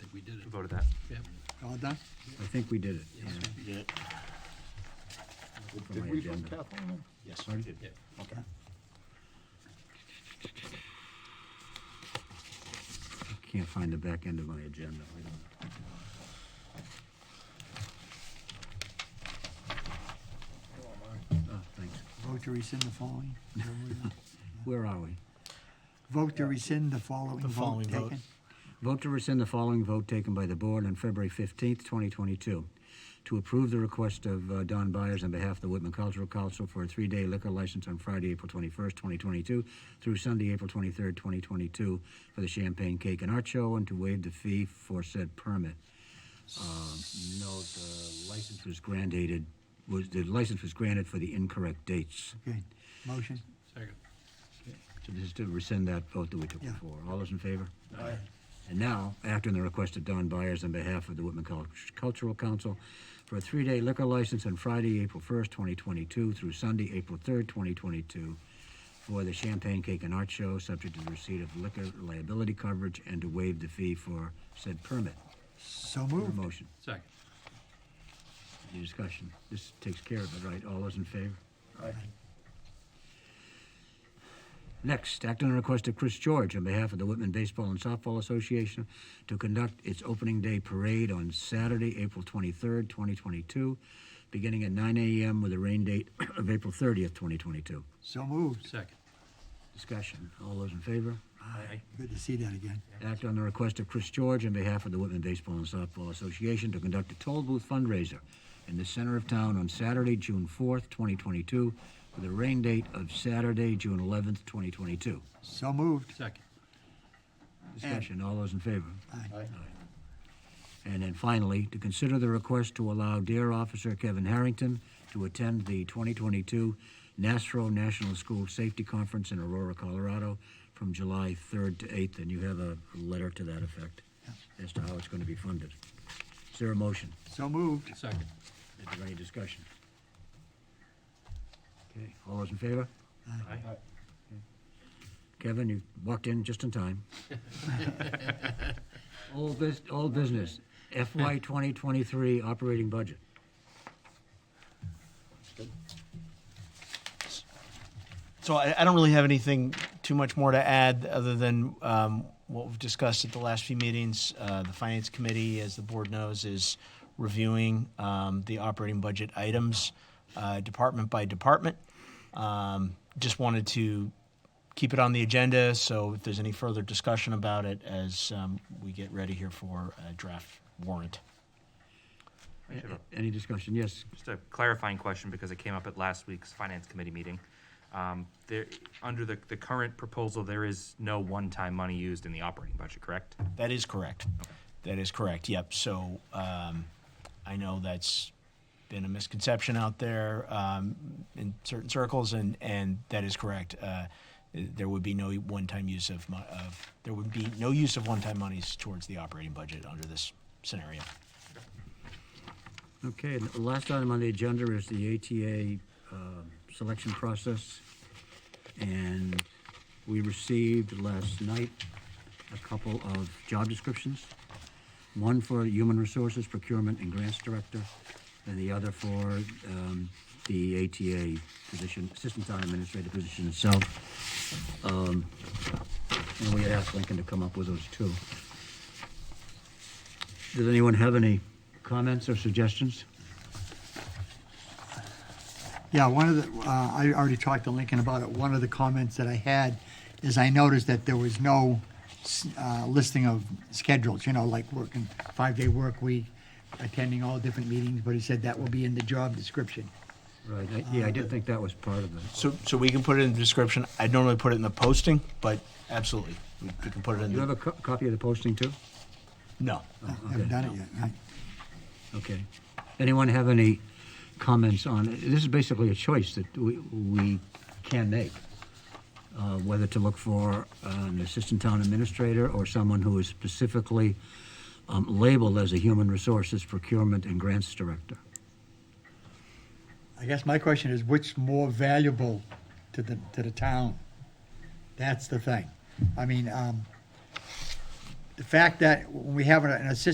did it. voted that. Yep. All done? I think we did it. Yes. Yeah. From my Did we vote agenda. Kathleen? Pardon? Yes, we did. Yep. Okay. I Can't find the back end of my agenda. Wait a minute. Oh, thanks. Vote to rescind the following. Where are we? Vote to rescind the following The vote following vote. taken. Vote to rescind the following vote taken by the board on February 15th, 2022, to approve the request of uh, Don Byers on behalf of the Whitman Cultural Council for a three-day liquor license on Friday, April 21st, 2022, through Sunday, April 23rd, 2022, for the Champagne Cake and Art Show, and to waive the fee for said permit. Uh, Note, the license was granted, was, the license was granted for the incorrect dates. Good. Motion? Second. So this is to rescind that vote that we took Yeah. before. All those in favor? Aye. And now, acting on the request of Don Byers on behalf of the Whitman Cul- Cultural Council for a three-day liquor license on Friday, April 1st, 2022 through Sunday, April 3rd, 2022 for the Champagne Cake and Art Show, subject to the receipt of liquor liability coverage and to waive the fee for said permit. So Your moved. motion, Second. your discussion. This takes care of it, right? All those in favor? Aye. Next, act on the request of Chris George on behalf of the Whitman Baseball and Softball Association to conduct its opening day parade on Saturday, April 23rd, 2022, beginning at 9 a.m. with a rain date of April 30th, 2022. So moved. Second. Discussion. All those in favor? Aye. Good to see that again. Act on the request of Chris George on behalf of the Whitman Baseball and Softball Association to conduct a toll booth fundraiser in the center of town on Saturday, June 4th, 2022, with a rain date of Saturday, June 11th, 2022. So moved. Second. Discussion. All those in favor? Aye. Aye. And then finally, to consider the request to allow Dare Officer Kevin Harrington to attend the 2022 NASRO National School Safety Conference in Aurora, Colorado, from July 3rd to 8th, and you have a letter to that effect as to how it's going to be funded. Is there a motion? So moved. Second. Is there any discussion? Okay, all those in favor? Aye. Kevin, you walked in just in time. Old bus, old business, FY 2023 operating budget. So I, I don't really have anything too much more to add, other than um, what we've discussed at the last few meetings. Uh, The Finance Committee, as the board knows, is reviewing um, the operating budget items, uh, department by department. Um, Just wanted to keep it on the agenda, so if there's any further discussion about it as um, we get ready here for a draft warrant. I should have a- Any discussion? Yes, Just a clarifying question because it came up at last week's finance committee meeting. Um, There, under the, the current proposal, there is no one-time money used in the operating budget, correct? That is correct. That is correct, yep. So um, I know that's been a misconception out there um, in certain circles, and, and that is correct. Uh, There would be no one-time use of, mo- of, there would be no use of one-time monies towards the operating budget under this scenario. Okay, and the last item on the agenda is the ATA um, selection process. And we received last night a couple of job descriptions. One for Human Resources Procurement and Grants Director, and the other for um, the ATA position, Assistant Town Administrator position itself. Um, And we had asked Lincoln to come up with those two. Does anyone have any comments or suggestions? Yeah, one of the, uh, I already talked to Lincoln about it. One of the comments that I had is I noticed that there was no s- uh, listing of schedules, you know, like working five-day work week, attending all different meetings, but he said that will be in the job description. Right, I- yeah, I did think that was part of it. So, so we can put it in the description. I'd normally put it in the posting, but absolutely, we we can put it in You have the, a co- copy of the posting too? no. Uh-huh. Haven't done it yet, right? Okay. Anyone have any comments on, this is basically a choice that we, we can make, uh, whether to look for an assistant town administrator or someone who is specifically um, labeled as a human resources procurement and grants director. I guess my question is, what's more valuable to the, to the town? That's the thing. I mean, um, the fact that when we have an assistant